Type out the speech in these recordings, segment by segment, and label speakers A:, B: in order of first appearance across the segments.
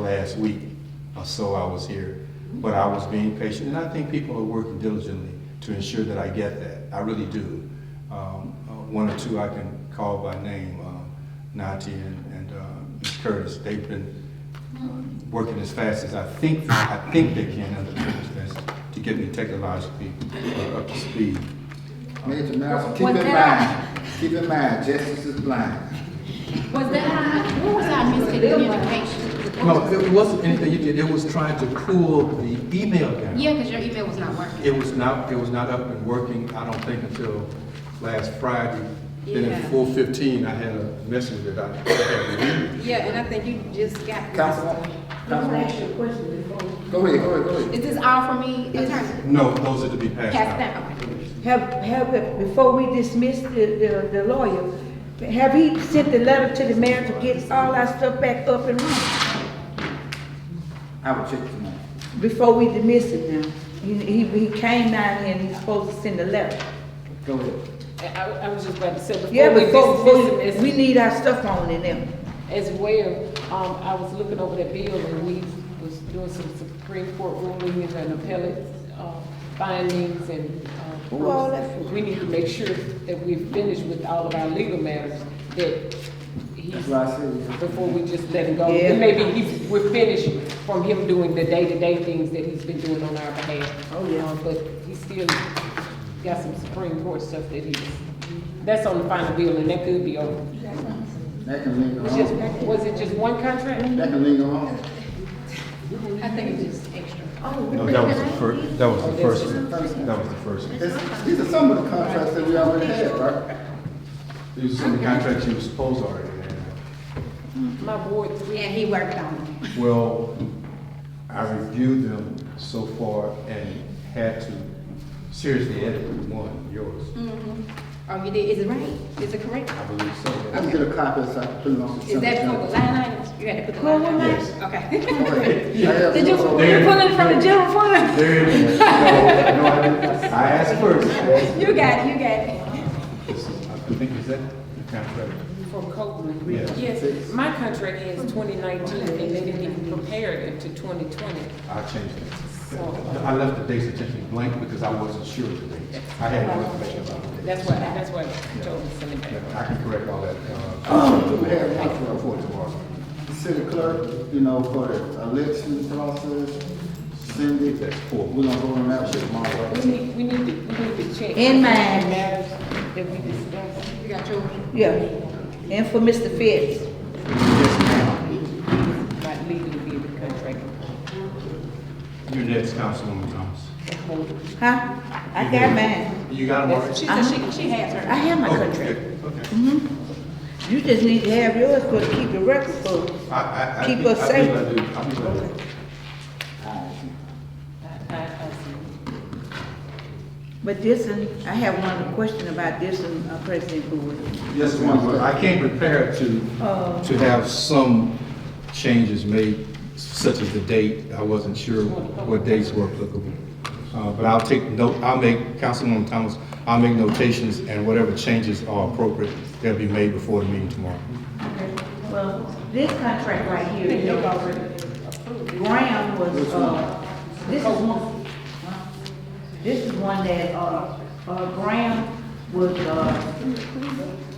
A: last week or so I was here, but I was being patient, and I think people are working diligently to ensure that I get that. I really do. Um, uh, One or two I can call by name, um, Nati and and, uh, Ms. Curtis. They've been uh, working as fast as I think, I think they can under the circumstances to get me technologically uh, up to speed.
B: Major Nelson, keep
C: What
B: in mind,
C: that-
B: keep in mind, justice is blind.
C: Was that, what was our miscommunication?
D: No, it wasn't anything you did, it was trying to cool the email down.
C: Yeah, because your email was not working.
D: It was not, it was not up and working, I don't think until last Friday. Then
E: Yeah.
D: at four fifteen, I had a message that I had to read.
E: Yeah, and I think you just got.
B: Councilwoman, Councilwoman, go ahead, go ahead, go ahead.
C: Is this all for me, attorney?
A: No, those are to be passed
C: Pass
A: out.
C: down, okay.
F: Have, have, it- before we dismiss the, the, the lawyer, have he sent the letter to the mayor to get all our stuff back up and running
B: I will check tonight.
F: before we dismiss it now? He, he, he came down here and he's supposed to send a letter.
B: Go ahead.
E: I, I was just about to say,
F: Yeah,
E: before we
F: before, before,
E: dismiss
F: we
E: him
F: need our stuff on in them.
E: as, as well, um, I was looking over that bill and we was doing some Supreme Court rulings and appellate, uh, findings and, uh,
F: Who all that for?
E: we need to make sure that we finish with all of our legal matters, that he's,
B: That's why I said,
E: before we just let him go.
F: Yeah.
E: And maybe he's, we're finished from him doing the day-to-day things that he's been doing on our behalf.
F: Oh, yeah.
E: Um, But he still got some Supreme Court stuff that he's, that's on the final bill and that could be over.
B: that can linger
E: Was just,
B: on.
E: was it just one contract?
B: That can linger on.
C: I think it's just extra.
A: No, that was the first, that was
E: Oh,
A: the
E: this
A: first
E: is
A: one. That was the first one.
B: It's- These are some of the contracts that we already had, right?
A: These are some of the contracts you were supposed to already have.
E: My board,
C: Yeah, he worked on
A: Well, I reviewed them so far and had to seriously edit one, yours.
C: it. Mhm. Oh, you did, is it right? Is it correct?
A: I believe
B: I
A: so.
B: can get a copy so I can put it on.
C: Is that from the line items? You had to put the line items? Okay. Did
B: Did
C: you, you pull it from the general fund?
A: There it is. No, no, I didn't. I asked first. I asked-
C: You got it, you got it.
A: this is- I think, is that the contract?
E: from Copeland.
A: Yeah.
E: Yes, my contract has twenty nineteen and they didn't even prepare it to twenty twenty,
A: I changed it.
E: so
A: I left the dates intentionally blank because I wasn't sure of the dates. I had no information about the dates.
E: that's why, that's why I told him to send it back.
A: I can correct all that,
B: Oh,
A: uh,
B: we have one for-
A: before tomorrow.
B: The city clerk, you know, for the election process, Cindy,
A: That's cool.
B: we're gonna go on that shit tomorrow.
E: We need, we need to, we need to check.
F: In mind.
E: the Matters that we discussed.
C: You got yours.
F: Yeah. And for Mr. Fitz.
E: Not legally be the contract.
A: Your next, Councilwoman Thomas.
F: Huh? I got mine.
A: You got them already?
C: She said she, she has
F: I
C: her.
F: have my
A: Mm-hmm. Okay,
F: contract.
A: good, Okay.
F: You just need to have yours for, to keep the record for.
A: I, I, I.
F: Keep
A: think-
F: us
A: I think
F: safe.
A: I do, I think I do.
E: I, I, I see.
F: But this, and I have one question about this and uh, President Bowie.
A: Yes, ma'am, but I came prepared to,
F: Oh.
A: to have some changes made, such as the date. I wasn't sure what dates were applicable. Uh, but I'll take note, I'll make, Councilwoman Thomas, I'll make notations and whatever changes are appropriate, they'll be made before the meeting tomorrow.
F: Well, this contract right here, you know, Graham was, uh, this is one, this is one that, uh, uh, Graham was, uh,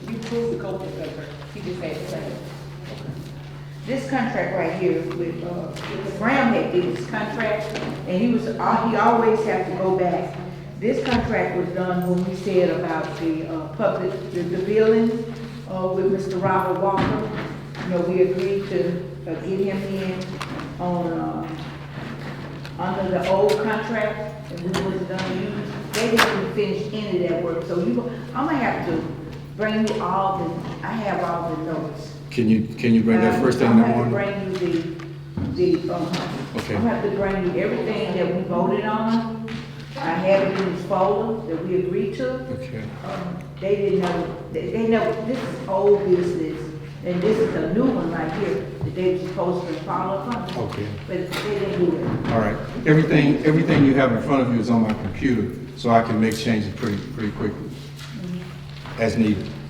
E: You proved the Copeland contract, he just had to sign it.
F: this contract right here with, uh, Graham had did this contract, and he was, uh, he always had to go back. This contract was done when we said about the, uh, public, the, the billing, uh, with Mr. Robert Walker. You know, we agreed to, uh, get him in on, uh, under the old contract, and we was gonna use, they didn't finish any of that work, so you, I'm gonna have to bring you all the, I have all the notes.
A: Can you, can you bring that
F: Um, Uh,
A: first thing in the morning?
F: I'm gonna bring you the, the, um,
A: Okay.
F: I'm gonna have to bring you everything that we voted on. I have it in this folder that we agreed to.
A: Okay.
F: Um, They didn't know, they, they know, this is old business, and this is a new one right here, that they were supposed to follow up on.
A: Okay.
F: But they didn't do it.
A: All right. Everything, everything you have in front of you is on my computer, so I can make changes pretty, pretty quickly, as needed.
F: uh,